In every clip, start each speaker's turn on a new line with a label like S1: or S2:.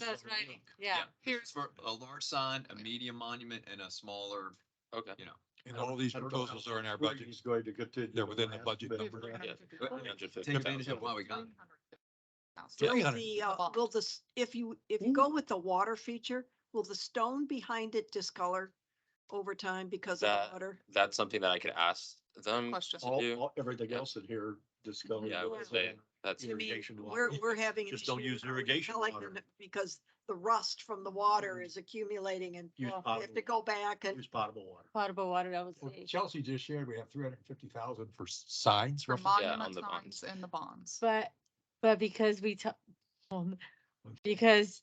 S1: That's right, yeah.
S2: Here's for a large sign, a medium monument and a smaller,
S3: Okay.
S2: you know.
S4: And all these proposals are in our budget.
S5: He's going to continue.
S4: They're within the
S5: last
S4: budget
S5: bit.
S4: number.
S2: Take advantage of what we got.
S4: Three
S6: Will
S4: hundred.
S6: the, uh, will this, if you, if you go with the water feature, will the stone behind it discolor over time because of
S3: That-
S6: the water?
S3: That's something that I could ask them to
S1: Questions.
S5: All,
S3: do.
S5: all- everything else in here, discovered.
S3: Yeah, I would say that's,
S6: To me,
S5: Irrigation water.
S6: we're, we're having. an
S4: Just don't
S6: issue
S4: use
S6: now with
S4: irrigation
S6: pellet
S4: water.
S6: unit Because the rust from the water is accumulating and we
S5: Use
S6: have to
S5: potable-
S6: go back and
S5: Use potable water.
S1: Potable water, I would
S4: Well,
S1: say.
S4: Chelsea just shared, we have three hundred and fifty thousand for s- signs.
S7: For
S4: roughly.
S3: Yeah, on
S7: monument
S3: the
S7: signs
S3: bonds.
S7: and the bonds.
S1: But, but because we took, because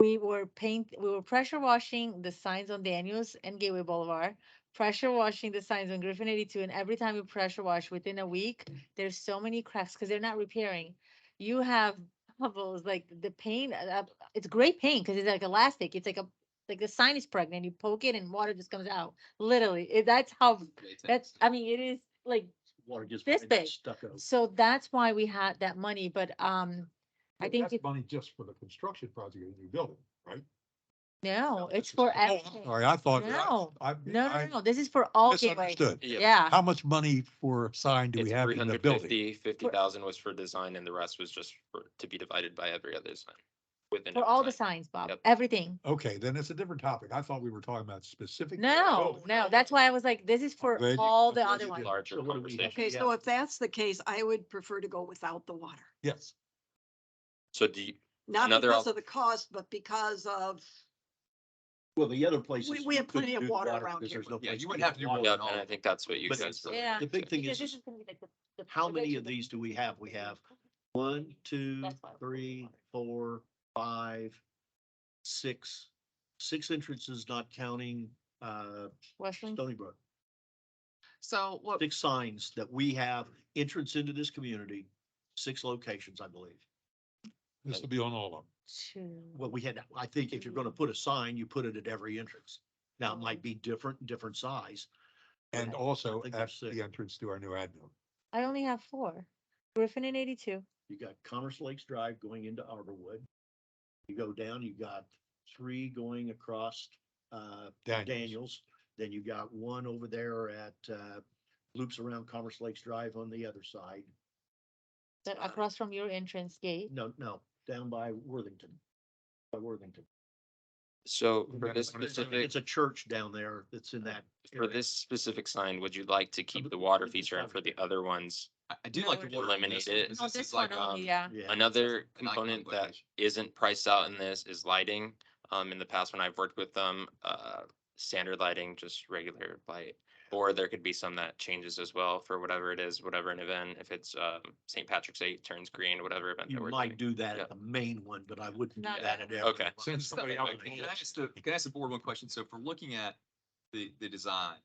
S1: we were paint, we were pressure washing the signs on Daniels and Gateway Boulevard, pressure washing the signs on Griffin eighty-two, and every time you pressure wash within a week, there's so many cracks, because they're not repairing. You have bubbles, like the paint, uh, uh, it's great paint, because it's like elastic, it's like a, like the sign is pregnant, you poke it and water just comes out, literally, it- that's how, that's, I mean, it is like
S5: Water gets.
S1: This
S5: behind that
S1: big.
S5: Stucco.
S1: so that's why we had that money, but, um, I
S4: But
S1: think,
S4: that's
S1: it-
S4: Money just for the construction project of the new building, right?
S1: no,
S5: this
S1: it's
S5: is-
S1: for
S5: Oh,
S1: everything. No,
S4: Sorry, I thought.
S1: No.
S4: I,
S1: no, no,
S4: I
S1: no, this is for all gateways.
S4: misunderstood.
S3: yeah.
S1: Yeah,
S4: How much money for a sign do
S3: It's
S4: we have in the
S3: 350.
S4: building?
S3: 50,000 was for design and the rest was just for, to be divided by every other sign. Within.
S1: for
S3: every
S1: all the
S3: sign.
S1: signs, Bob,
S3: Yep.
S1: everything.
S4: Okay, then it's a different topic. I thought we were talking about specific.
S1: No, no, that's why I was like, this is for
S4: glad you-
S1: all
S4: I'm
S1: the
S4: glad
S1: other
S4: you
S1: ones.
S4: did.
S3: Larger
S5: So what do we have?
S3: conversation.
S6: Okay, so if that's the case, I would prefer to go without the water.
S4: Yes.
S3: So do you,
S6: Not
S3: Another
S6: because
S3: al-
S6: of the cost, but because of,
S5: Well, the other places.
S6: We- we
S5: you
S6: have plenty
S5: couldn't
S6: of
S5: do the
S6: water around
S5: because
S6: here.
S5: there's no
S2: Yeah,
S5: place
S2: you
S5: to
S2: wouldn't
S5: put
S2: have to do
S5: water.
S3: yeah, and I think that's what you
S5: But
S3: guys. really-
S1: Yeah.
S5: The big thing
S1: Because
S5: is,
S1: this
S5: is
S1: is gonna be like the- the
S5: how many of
S1: prevention
S5: these
S1: measures.
S5: do we have? We have one, two,
S1: That's why we're
S5: three,
S1: water.
S5: four, five, six, six entrances, not counting, uh,
S1: Westland,
S5: Stony Brook.
S7: So what,
S5: Six signs that we have entrance into this community, six locations, I believe.
S4: This will be on all of them.
S1: two,
S5: Well, we had, I think if you're gonna put a sign, you put it at every entrance. Now, it might be different, different size.
S4: And also
S5: think
S4: at
S5: there's six.
S4: the entrance to our new admin.
S1: I only have four, Griffin and eighty-two.
S5: You got Commerce Lakes Drive going into Arborwood. You go down, you got three going across, uh, Daniels. Then you got one over there at, uh, loops around Commerce Lakes Drive on the other side.
S1: that across from your entrance gate.
S5: No, no, down by Worthington. By Worthington.
S3: So
S4: We're
S3: for
S4: gonna
S3: this
S4: put it in-
S3: specific, Uh,
S5: It's a church down there that's in that.
S3: for
S5: area.
S3: this specific sign, would you like to keep
S5: but
S3: the water
S5: this is
S3: feature and for the other ones?
S2: I, I do like
S1: No,
S2: the
S1: we're
S2: water. on this
S3: Eliminate it.
S2: because
S1: Oh,
S2: this is
S1: this
S2: like,
S1: one only,
S2: um,
S1: yeah.
S5: Yeah.
S3: Another
S2: an iconic
S3: component that
S2: location.
S3: isn't priced out in this is lighting. Um, in the past, when I've worked with them, uh, standard lighting, just regular light. Or there could be some that changes as well for whatever it is, whatever an event, if it's, um, St. Patrick's Day it turns green, whatever event that
S5: You
S3: we're
S5: might
S3: doing.
S5: do that
S3: Yeah.
S5: at the main one, but I wouldn't do
S1: Not
S5: that at
S1: that
S5: every.
S3: Okay.
S5: one.
S4: Send
S2: So,
S4: somebody out.
S2: okay, Can I ask the, can I ask the board one question? So if we're looking at the, the design,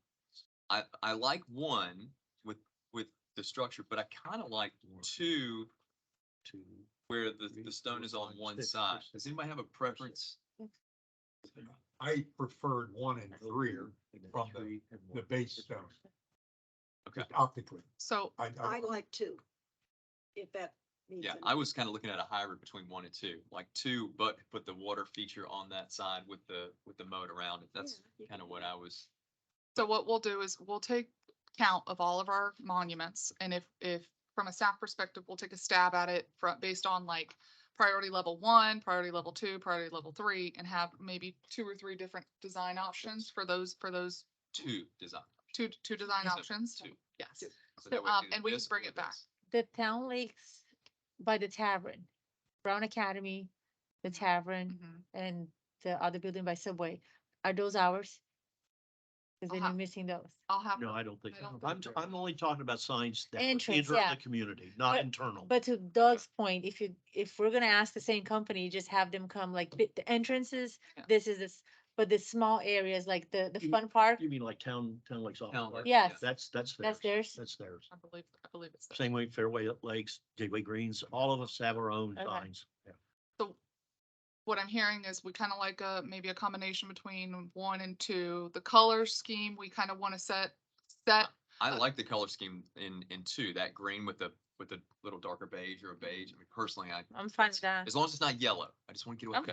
S2: I, I like one with, with the structure, but I kind of like two
S5: Two.
S2: where the,
S5: Three,
S2: the stone
S5: four,
S2: is on
S5: five,
S2: one
S5: six,
S2: side.
S5: six,
S2: Does anybody have a
S5: six.
S2: preference?
S4: I preferred one and three
S5: and then
S4: from the-
S5: three and
S4: the
S5: one.
S4: base stone.
S2: Okay.
S4: just Optically.
S7: so
S4: I,
S6: I
S4: I,
S6: like two. If that means.
S2: Yeah, I was kind of looking at a hybrid between one and two, like two, but put the water feature on that side with the, with the moat around it. That's kind of what I was.
S7: So what we'll do is we'll take count of all of our monuments and if, if, from a staff perspective, we'll take a stab at it from, based on like priority level one, priority level two, priority level three, and have maybe two or three different design options for those, for those
S2: two design.
S7: two, two design
S2: Yes, sir.
S7: options.
S2: Two.
S7: Yes.
S2: Two. So that
S7: So,
S2: would
S7: um,
S2: be the
S7: and we can
S2: best
S7: bring
S2: of
S7: it
S2: the
S7: back.
S2: best.
S1: the town lakes by the tavern, Brown Academy, the tavern,
S7: Mhm.
S1: and the other building by Subway, are those ours? Cause then
S7: Uh-huh.
S1: you're missing those.
S7: I'll have,
S5: No, I don't think,
S7: I don't
S5: I'm,
S7: think so.
S5: I'm only talking about signs that would
S1: Entrance,
S5: enter
S1: yeah.
S5: the community, not
S1: But-
S5: internal.
S1: But to Doug's point, if you, if we're gonna ask the same company, just have them come like the the entrances,
S7: Yeah.
S1: this is this, but the small areas like the, the
S5: You-
S1: fun park,
S5: You mean like town, town lakes off?
S2: Town Lake,
S1: Yeah. Yes.
S5: That's, that's theirs.
S1: that's theirs.
S5: That's theirs.
S7: I believe, I believe it's. there.
S5: Same way Fairway Lakes, Gateway Greens, all of us have our own
S1: Okay.
S5: signs. Yeah.
S7: So what I'm hearing is we kind of like a, maybe a combination between one and two. The color scheme, we kind of want to set, set Uh,
S2: I like the color scheme in, in two, that green with the with a little darker beige or a beige. I mean, personally, I,
S1: I'm fine with that.
S2: as long as it's not yellow, I just want to get away.
S1: I'm
S2: from